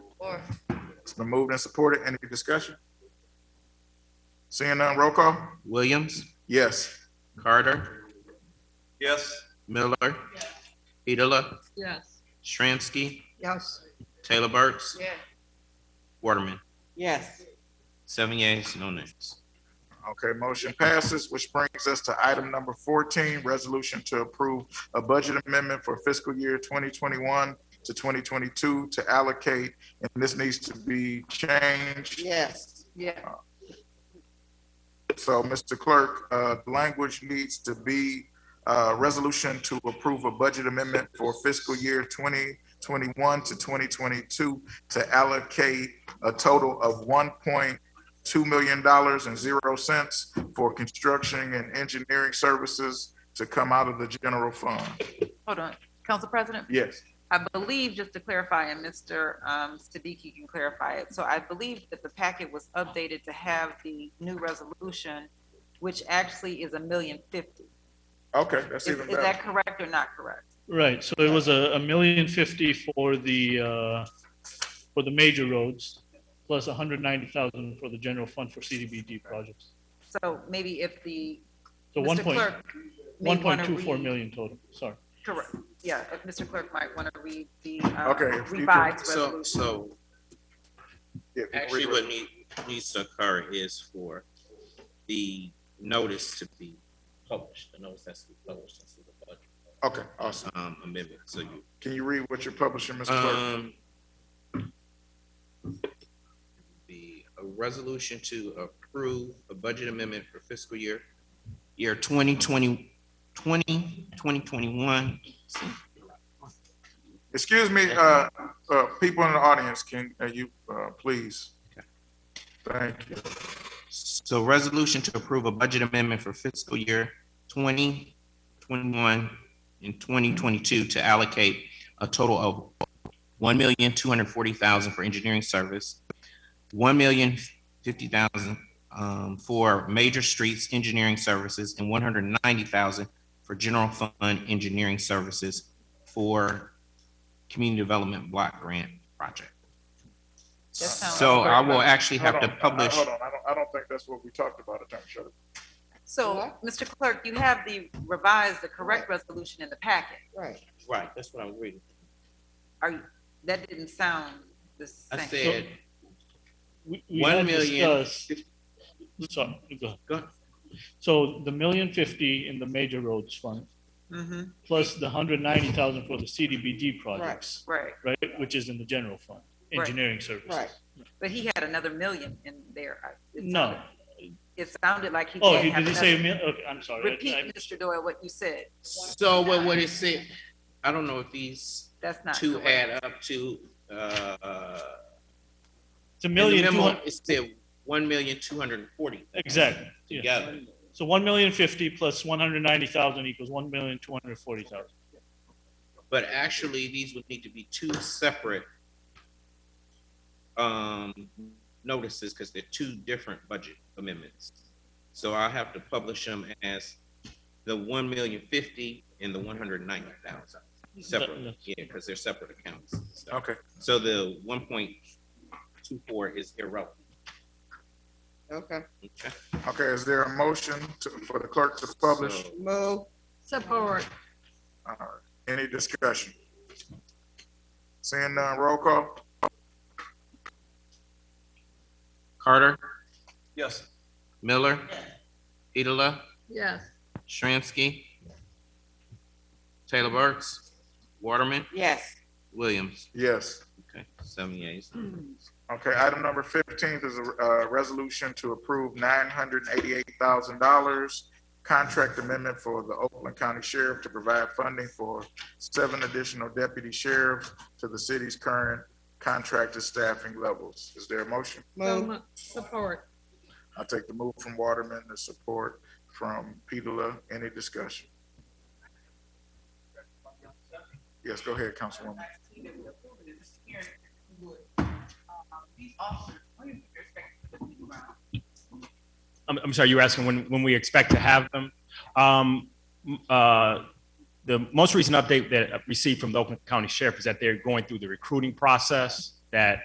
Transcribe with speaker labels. Speaker 1: Or
Speaker 2: It's been moved and supported. Any discussion? Seeing none, roll call?
Speaker 3: Williams,
Speaker 2: Yes.
Speaker 3: Carter,
Speaker 2: Yes.
Speaker 3: Miller, Petula,
Speaker 1: Yes.
Speaker 3: Shransky,
Speaker 4: Yes.
Speaker 3: Taylor Burks,
Speaker 1: Yeah.
Speaker 3: Waterman.
Speaker 4: Yes.
Speaker 3: Seven yeas, no nays.
Speaker 2: Okay, motion passes, which brings us to item number fourteen, resolution to approve a budget amendment for fiscal year twenty twenty-one to twenty twenty-two to allocate, and this needs to be changed.
Speaker 4: Yes.
Speaker 1: Yeah.
Speaker 2: So, Mr. Clerk, uh, the language needs to be, uh, resolution to approve a budget amendment for fiscal year twenty twenty-one to twenty twenty-two to allocate a total of one point two million dollars and zero cents for construction and engineering services to come out of the general fund.
Speaker 5: Hold on, Council President,
Speaker 2: Yes.
Speaker 5: I believe, just to clarify, and Mr. um, Siddiqui can clarify it, so I believe that the packet was updated to have the new resolution, which actually is a million fifty.
Speaker 2: Okay, that's
Speaker 5: Is
Speaker 2: even
Speaker 5: is
Speaker 2: better.
Speaker 5: that correct or not correct?
Speaker 6: Right, so it was a, a million fifty for the, uh, for the major roads, plus a hundred ninety thousand for the general fund for CDBG projects.
Speaker 5: So maybe if the.
Speaker 6: So
Speaker 5: Mr.
Speaker 6: one point,
Speaker 5: Clerk may
Speaker 6: one point
Speaker 5: wanna
Speaker 6: two four
Speaker 5: read-
Speaker 6: million total, sorry.
Speaker 5: Correct, yeah, if Mr. Clerk might want to read the uh,
Speaker 2: Okay, if you could-
Speaker 5: revised
Speaker 3: So,
Speaker 5: resolution.
Speaker 3: so
Speaker 2: Yeah,
Speaker 3: Actually,
Speaker 2: read
Speaker 3: what need, needs to occur is for the notice to be published, the notice has to be published, that's the budget,
Speaker 2: it. Okay, awesome.
Speaker 3: um, amendment, so you.
Speaker 2: Can you read what you're publishing, Mr. Clerk?
Speaker 3: Um. The, a resolution to approve a budget amendment for fiscal year, year 2020 20, 2021.
Speaker 2: Excuse me, uh, uh, people in the audience, can, uh, you, uh, please? Thank you.
Speaker 3: So resolution to approve a budget amendment for fiscal year twenty twenty-one and twenty twenty-two to allocate a total of one million, two hundred forty thousand for engineering service, one million, fifty thousand, um, for major streets engineering services, and one hundred ninety thousand for general fund engineering services for community development block grant project.
Speaker 5: That sounds-
Speaker 3: So I will actually have to
Speaker 2: Hold on, I- I-
Speaker 3: publish.
Speaker 2: Hold on, I don't, I don't think that's what we talked about, Attorney Shutter.
Speaker 5: So, Mr. Clerk, you have the revised, the correct resolution in the packet.
Speaker 4: Right.
Speaker 3: Right, that's what I'm reading.
Speaker 5: Are, you- that didn't sound the same.
Speaker 3: I said,
Speaker 6: We- we
Speaker 3: One
Speaker 6: had
Speaker 3: million
Speaker 6: discussed- Sorry, go ahead.
Speaker 3: Go ahead.
Speaker 6: So the million fifty in the major roads fund,
Speaker 5: Mm-hmm,
Speaker 6: plus the hundred ninety thousand for the CDBG projects,
Speaker 5: right,
Speaker 6: right, which is in the general fund,
Speaker 5: Right.
Speaker 6: engineering services.
Speaker 4: Right.
Speaker 5: but he had another million in there. I- it
Speaker 6: No,
Speaker 5: sounded- It sounded like he
Speaker 6: oh,
Speaker 5: did
Speaker 6: he
Speaker 5: have
Speaker 6: didn't say, a
Speaker 5: another.
Speaker 6: mil- okay, I'm sorry. I- I-
Speaker 5: Repeat, Mr. Doyle, what you said,
Speaker 3: so what would it say? I don't know if these
Speaker 5: that's not
Speaker 3: two
Speaker 5: correct.
Speaker 3: add up to, uh,
Speaker 6: It's a
Speaker 3: in the
Speaker 6: million, two
Speaker 3: memo,
Speaker 6: hundred,
Speaker 3: it said one million, two hundred and forty
Speaker 6: exactly, yeah.
Speaker 3: together.
Speaker 6: So one million fifty plus one hundred ninety thousand equals one million two hundred forty thousand.
Speaker 3: But actually, these would need to be two separate, um, notices because they're two different budget amendments. So I'll have to publish them as the one million fifty and the one hundred ninety thousand separately, yeah, because they're separate accounts. So-
Speaker 2: Okay,
Speaker 3: So the one point two four is irrelevant.
Speaker 4: Okay.
Speaker 3: Okay.
Speaker 2: okay, is there a motion to, for the clerk to publish?
Speaker 3: So,
Speaker 4: Move.
Speaker 1: Support.
Speaker 2: All right. Any discussion? Seeing none, roll call?
Speaker 3: Carter,
Speaker 2: Yes.
Speaker 3: Miller, Petola,
Speaker 1: Yes.
Speaker 3: Shramsky, Taylor Burks, Waterman,
Speaker 4: Yes.
Speaker 3: Williams.
Speaker 2: Yes.
Speaker 3: Okay, seven yeas.
Speaker 2: Okay, item number fifteen is a, uh, resolution to approve nine hundred and eighty-eight thousand dollars contract amendment for the Oakland County Sheriff to provide funding for seven additional deputy sheriffs to the city's current contracted staffing levels. Is there a motion?
Speaker 1: So
Speaker 4: Move.
Speaker 1: mu- Support.
Speaker 2: I take the move from Waterman, the support from Petula. Any discussion? Yes, go ahead, Councilwoman.
Speaker 7: I'm, I'm sorry, you were asking when, when we expect to have them. Um, m- uh, the most recent update that I received from the Oakland County Sheriff is that they're going through the recruiting process, that